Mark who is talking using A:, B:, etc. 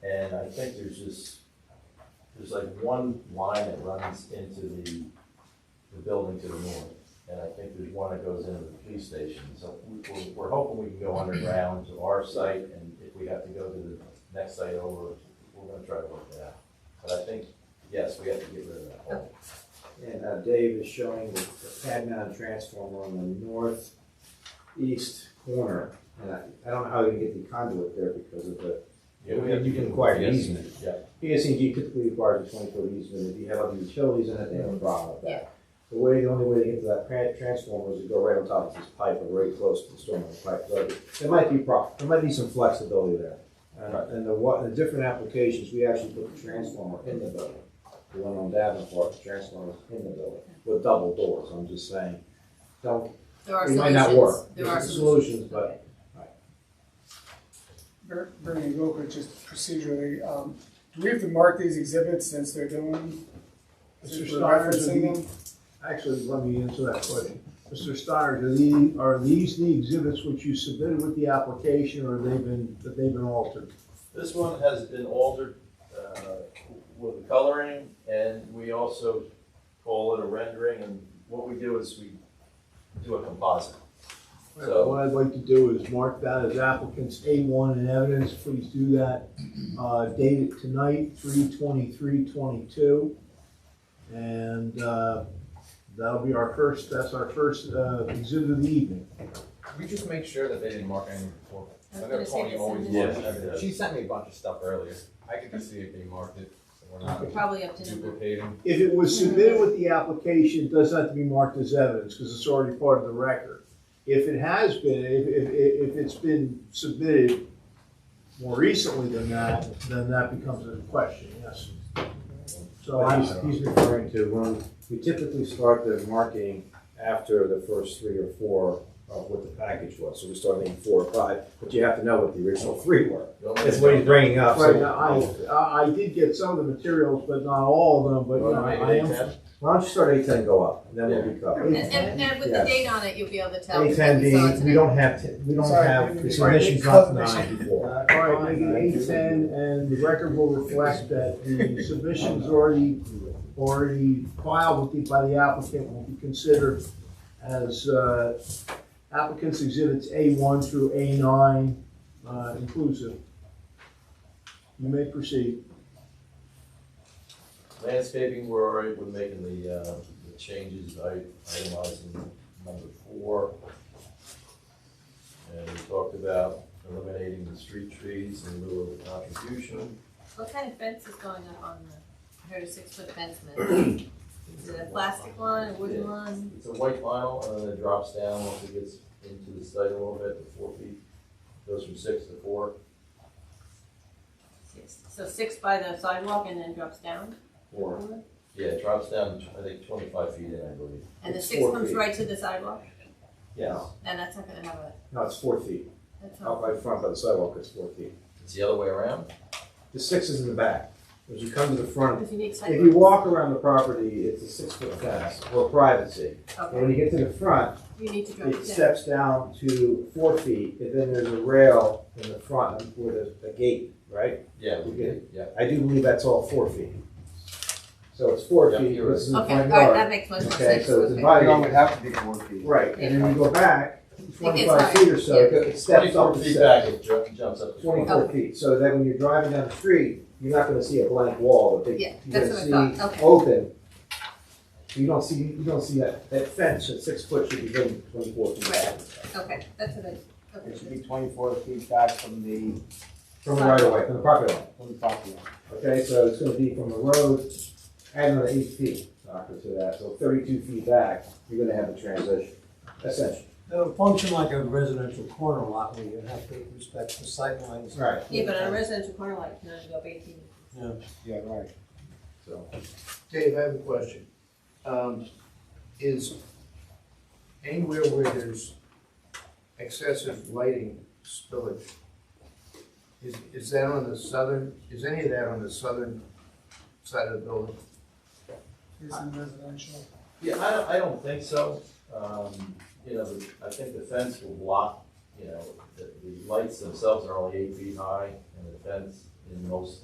A: think there's just, there's like one line that runs into the, the building to the north. And I think there's one that goes into the police station, so we, we're, we're hoping we can go underground to our site, and if we have to go to the next site over, we're gonna try to work that out. But I think, yes, we have to get rid of that hole.
B: And uh, Dave is showing the the pad mount transformer on the northeast corner. And I, I don't know how you get the conduit there because of the,
A: Yeah, we have to-
B: you can acquire an
A: Yes.
B: easement.
A: Yeah,
B: PSCG typically requires a twenty foot easement, if you have other utilities in it, they have a problem with that. The way, the only way to get to that tra- transformer is to go right on top of this pipe or very close to the stormwater pipe, so there might be prob, there might be some flexibility there. Uh,
A: Right.
B: and the wa, the different applications, we actually put the transformer in the building. The one on Davenport, the transformer's in the building, with double doors, I'm just saying, don't,
C: There are
B: it
C: solutions.
B: might not work.
C: There are
B: There's solutions, but
D: Ber- Bernie, real quick, just procedurally, um, do we have to mark these exhibits since they're doing?
E: Mr.
D: since we're
E: Steiner, do
D: referencing
E: the-
D: them?
E: actually, let me answer that question. Mr. Steiner, do the, are these the exhibits which you submitted with the application, or have they been, have they been altered?
A: This one has been altered uh, with the coloring, and we also call it a rendering, and what we do is we do a composite. So-
E: What I'd like to do is mark that as applicants A one in evidence, please do that. Uh, date it tonight, three twenty-three twenty-two. And, uh, that'll be our first, that's our first, uh, exhibit of the evening.
F: Could we just make sure that they didn't mark anything before?
C: I was
F: I
C: gonna
F: know
C: say
F: Tony
C: this
F: always
C: in the-
F: marks
A: Yes.
F: everything. She sent me a bunch of stuff earlier. I could just see if they marked it, so we're not
C: Probably up to number.
F: duplicating.
E: If it was submitted with the application, it does not have to be marked as evidence because it's already part of the record. If it has been, if, if, if if it's been submitted more recently than that, then that becomes a question, yes. So
B: So
E: I,
B: he's, he's referring to when we typically start the marketing after the first three or four of what the package was. So we start making four or five, but you have to know what the original three were. That's what he's bringing up.
E: right,
B: So
E: now, I, I- I did get some of the materials, but not all of them, but you know, I am.
B: why don't you start eight ten, go up, and then we'll be covered.
C: And, and, and with the
B: Yes.
C: date on it, you'll be able to tell.
B: Eight ten
C: because we
B: being,
C: saw it
B: we
C: tonight.
B: don't have, to- we don't
D: Sorry,
B: have,
D: we-
B: the
D: we-
B: submission's not nine before.
E: Uh, All right, make it eight ten, and the record will reflect that the submissions already, already filed with the, by the applicant will be considered as, uh, applicants exhibits A one through A nine, uh, inclusive. You may proceed.
A: Landscaping, we're already, we're making the, uh, the changes, I itemizing number four. And we talked about eliminating the street trees in lieu of the contribution.
C: What kind of fence is going up on the, I heard a six foot fence, man. Is it a plastic one, a wooden one?
A: It's a white vinyl, and then it drops down once it gets into the site a little bit, to four feet, goes from six to four.
C: Six. So six by the sidewalk and then drops down?
B: Four.
A: Yeah, it drops down, I think, twenty-five feet in, I believe.
C: And the
B: It's
C: six
B: four
C: comes
B: feet.
C: right to the sidewalk?
A: Yes.
C: And that's not gonna have a,
B: No, it's four feet.
C: that's
B: Out
C: not,
B: by the front by the sidewalk, it's four feet.
A: It's the other way around?
B: The six is in the back. As you come to the front,
C: because you need sidewalk.
B: If you walk around the property, it's a six foot fence for privacy. And when
C: Okay,
B: you get to the front,
C: you need to drop
B: it
C: it down.
B: steps down to four feet, and then there's a rail in the front with a, a gate, right?
A: Yeah, we get
B: We get
A: it, yeah.
B: I do believe that's all four feet. So it's four
A: Yeah,
B: feet,
A: you're right.
B: this is the
C: Okay, all right,
B: front
C: that
B: yard.
C: makes much more
B: Okay,
C: sense.
B: so it's
C: Okay.
B: divided.
E: have to be four feet.
B: Right, and then you go back twenty-five
C: higher.
B: feet or so,
C: Yeah.
B: it goes- it steps up
A: Twenty-four
B: to
A: feet
B: six.
A: back, it ju- jumps up to twenty-four.
C: Oh.
B: Twenty-four feet, so that when you're driving down the street, you're not gonna see a blank wall, but
C: Yeah,
B: they, you're
C: that's
B: gonna
C: what I
B: see
C: thought, okay.
B: open. You don't see, you don't see that, that fence at six foot should be going twenty-four feet
C: Right.
B: back.
C: Okay, that's what I, okay.
G: It should be twenty-four feet back from the,
B: From the right of way, from the property line,
G: from the property line.
B: okay, so it's gonna be from the road, add another eight feet, knocker to that, so thirty-two feet back, you're gonna have the transition, essentially.
H: It'll function like a residential corner lot where you have to respect the sightlines.
B: Right.
C: Yeah, but on a residential corner lot, you can only go up eighteen.
G: Yeah, right.
B: So,
E: Dave, I have a question. Um, is anywhere where there's excessive lighting spillage, is, is that on the southern, is any of that on the southern side of the building?
D: Is in residential.
A: Yeah, I don't, I don't think so. Um, you know, the- I think the fence will block, you know, the, the lights themselves are only eight feet high, and the fence in most